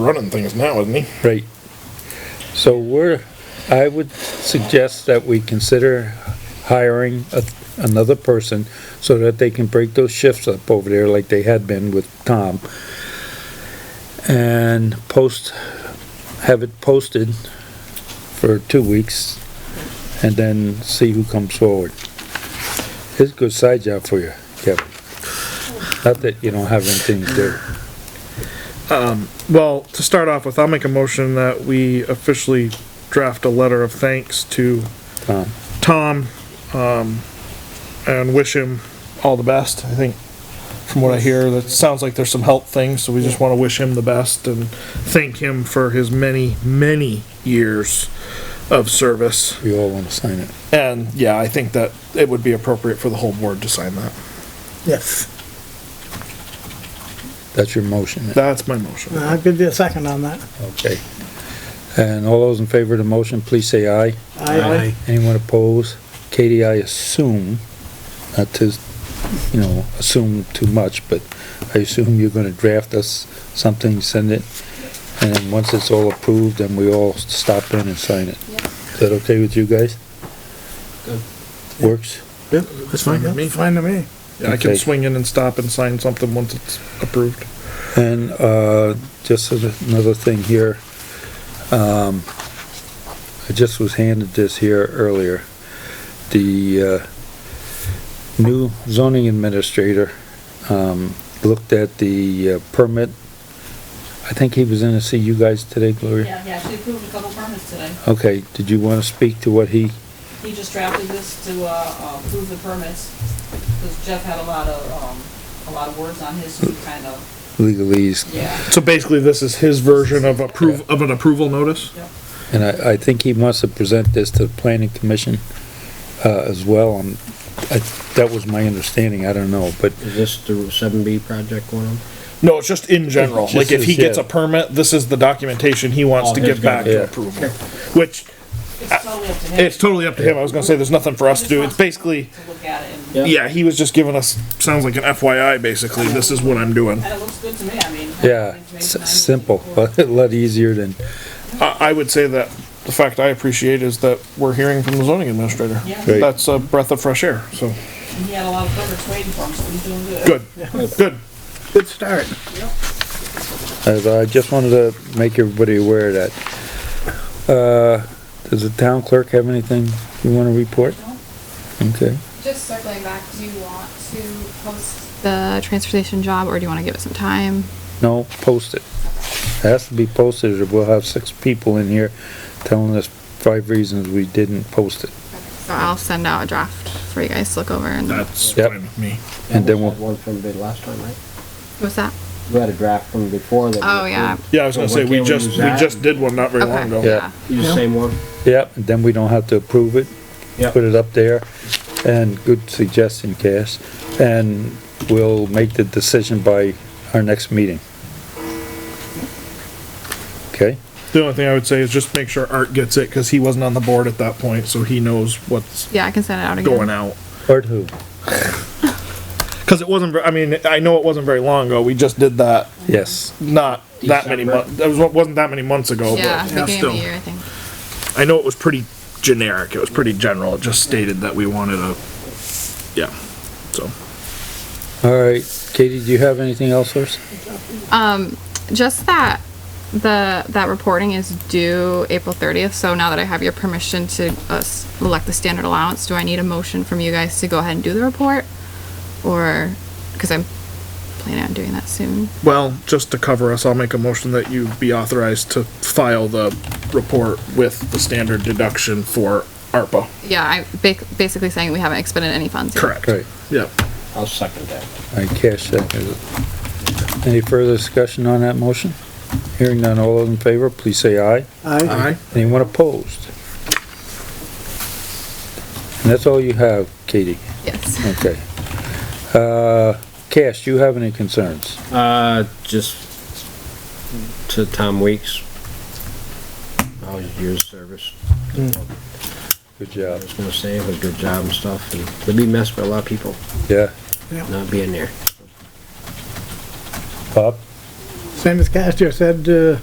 running things now, isn't he? Right. So we're, I would suggest that we consider hiring a, another person so that they can break those shifts up over there like they had been with Tom. And post, have it posted for two weeks and then see who comes forward. It's a good side job for you, Kevin. Not that you don't have anything to do. Well, to start off with, I'll make a motion that we officially draft a letter of thanks to Tom. Tom, um, and wish him all the best, I think. From what I hear, that sounds like there's some health things, so we just wanna wish him the best and thank him for his many, many years of service. We all want to sign it. And, yeah, I think that it would be appropriate for the whole board to sign that. Yes, That's your motion. That's my motion. I could do a second on that. Okay. And all those in favor of the motion, please say aye. I Anyone opposed? Katie, I assume, not to, you know, assume too much, but I assume you're gonna draft us something, send it, and then once it's all approved, then we all stop in and sign it. Is that okay with you guys? Good. Works? Yep, that's fine with me. Fine to me. Yeah, I can Okay. swing in and stop and sign something once it's approved. And, uh, just as another thing here, um, I just was handed this here earlier. The, uh, new zoning administrator, um, looked at the uh, permit. I think he was in to see you guys today, Gloria? Yeah, he actually approved a couple permits today. Okay, did you wanna speak to what he, He just drafted this to, uh, uh, approve the permits, because Jeff had a lot of, um, a lot of words on his, so he kind of, legalese? yeah, So basically, this is his version of approve, of an approval notice? yep. And I, I think he wants to present this to the planning commission, uh, as well, and I, that was my understanding, I don't know, but Is this the seven B project one? No, it's just in general, It's like just if he his, yeah. gets a permit, this is the documentation he wants Oh, to he's give back gonna- to yeah. approval. Which, It's totally up to him. it's totally up to him, I was gonna say, there's nothing for us to do, it's basically, To look at it, and, Yeah. yeah, he was just giving us, sounds like an FYI, basically, this is what I'm doing. and it looks good to me, I mean. Yeah, information s- I'm looking simple, for. but a lot easier than, I, I would say that the fact I appreciate is that we're hearing from the zoning administrator. Yeah. Right. That's a breath of fresh air, so, And he had a lot of permits waiting for him, so he's doing good. good, good. Good start. as I just wanted to make everybody aware of that. Uh, does the town clerk have anything you wanna report? Okay, Just circling back, do you want to post the transportation job or do you want to give it some time? no, post it. It Has to be posted, or we'll have six people in here telling us five reasons we didn't post it. So I'll send out a draft for you guys to look over and That's Yep. fine with me. And then we'll- One from the last time, right? what's that? You had a draft from before that. we Oh, yeah. approved. Yeah, I was gonna So say, why we can't just, use we that? just did one not very long Okay, ago. Yeah. yeah. Use the same one? Yep, and then we don't have to approve it. Yep. Put it up there, and good suggestion, Cass, and we'll make the decision by our next meeting. Okay? The only thing I would say is just make sure Art gets it, cause he wasn't on the board at that point, so he knows what's Yeah, I can send it out again. going out. Or who? Cause it wasn't, ver- I mean, I know it wasn't very long ago, we just did that, Yes, not that many December. months, that was, wasn't that many months ago, Yeah, but beginning of still. the year, I think. I know it was pretty generic, it was pretty general, it just stated that we wanted a, yeah, so. all right, Katie, do you have anything else for us? Just that the that reporting is due April 30th. So now that I have your permission to uh, s- elect the standard allowance, do I need a motion from you guys to go ahead and do the report? Or because I'm planning on doing that soon. Well, just to cover us, I'll make a motion that you be authorized to file the report with the standard deduction for ARPA, Yeah, I'm ba- basically saying we haven't expended any funds. yet. correct? Right, Yep. I'll second that. I cash that. Any further discussion on that motion? Hearing none, all those in favor, please say aye. I Aye. Anyone opposed? And that's all you have, Katie? Yes. Okay. Uh, Cash, do you have any concerns? Uh, just to Tom Weeks. Always years service. Good I job. was gonna say, it was a good job and stuff, and it'd be missed by a lot of people Yeah. not being there. Bob? Same as Castor said, uh,